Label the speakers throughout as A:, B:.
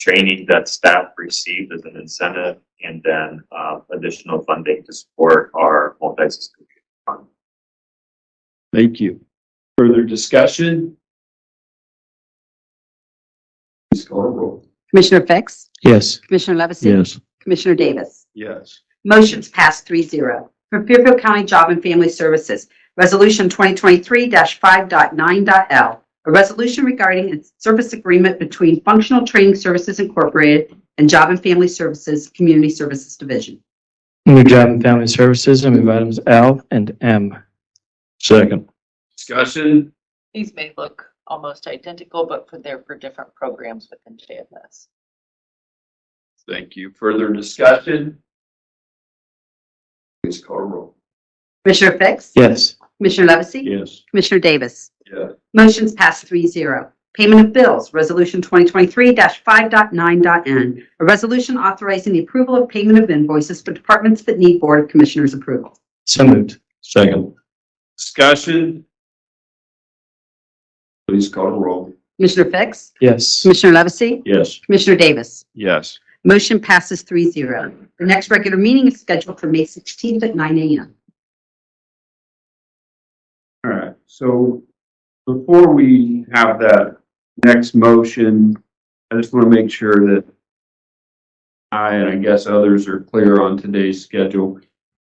A: training that staff received as an incentive, and then uh, additional funding to support our multi-system fund.
B: Thank you. Further discussion? Please call a roll.
C: Commissioner Fix?
D: Yes.
C: Commissioner Levesey?
D: Yes.
C: Commissioner Davis?
B: Yes.
C: Motion's passed three zero. From Fairfield County Job and Family Services, Resolution 2023-5.9.l, a resolution regarding a service agreement between Functional Training Services Incorporated and Job and Family Services Community Services Division.
D: New Job and Family Services, I move items L and M.
B: Second. Discussion?
E: These may look almost identical, but for, they're for different programs within JFS.
B: Thank you. Further discussion? Please call a roll.
C: Commissioner Fix?
D: Yes.
C: Commissioner Levesey?
B: Yes.
C: Commissioner Davis?
B: Yeah.
C: Motion's passed three zero. Payment of bills, Resolution 2023-5.9.n, a resolution authorizing the approval of payment of invoices for departments that need Board of Commissioners approval.
D: So moved.
B: Second. Discussion? Please call a roll.
C: Commissioner Fix?
D: Yes.
C: Commissioner Levesey?
B: Yes.
C: Commissioner Davis?
B: Yes.
C: Motion passes three zero. The next regular meeting is scheduled for May 16th at 9 a.m.
F: All right, so before we have that next motion, I just want to make sure that I and I guess others are clear on today's schedule.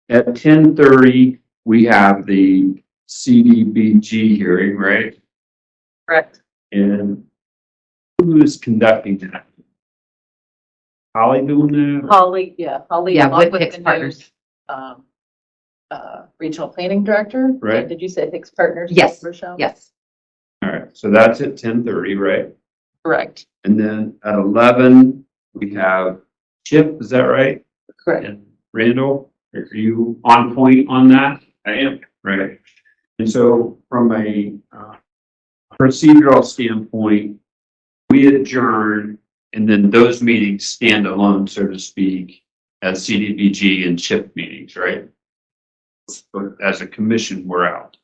F: At ten thirty, we have the CDBG hearing, right?
E: Correct.
F: And who is conducting that? Holly doing that?
E: Holly, yeah, Holly.
C: Yeah,
E: along
C: with
E: the
C: Hicks
E: new,
C: Partners.
E: um, uh, Regional Planning Director.
F: Right.
E: Did you say Hicks Partners?
C: Yes,
E: Rochelle?
C: Yes.
F: All right, so that's at ten thirty, right?
E: Correct,
F: And then at eleven, we have Chip, is that right?
E: correct.
F: And Randall, are you on point on that? I am. Right. And so from a uh, procedural standpoint, we adjourn and then those meetings stand alone, so to speak, as CDBG and CHIP meetings, right? But as a commission, we're out.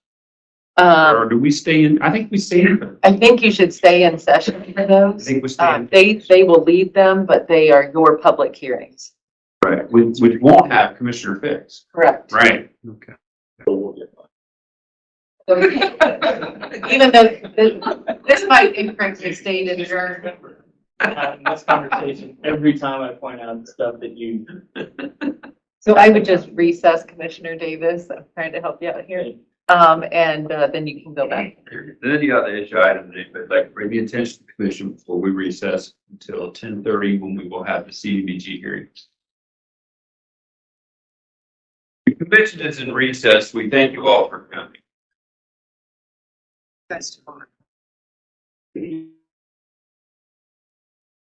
F: Or
E: Um,
F: do we stay in? I think we stay in.
E: I think you should stay in session for
F: I
E: those.
F: think we stay
E: Uh,
F: in.
E: they, they will lead them, but they are your public hearings.
F: Right, which, which won't have Commissioner Fix.
E: Correct.
F: Right. Okay.
E: Even though this, this might incorrectly state adjourned.
G: having this conversation every time I point out stuff that you.
E: So I would just recess Commissioner Davis. I'm trying to help you out here. Um, and uh, then you can go back.
F: Then the other issue item that I'd like to bring the attention to the commission before we recess until ten thirty when we will have the CDBG hearing. The commission is in recess. We thank you all for coming.
E: That's tomorrow.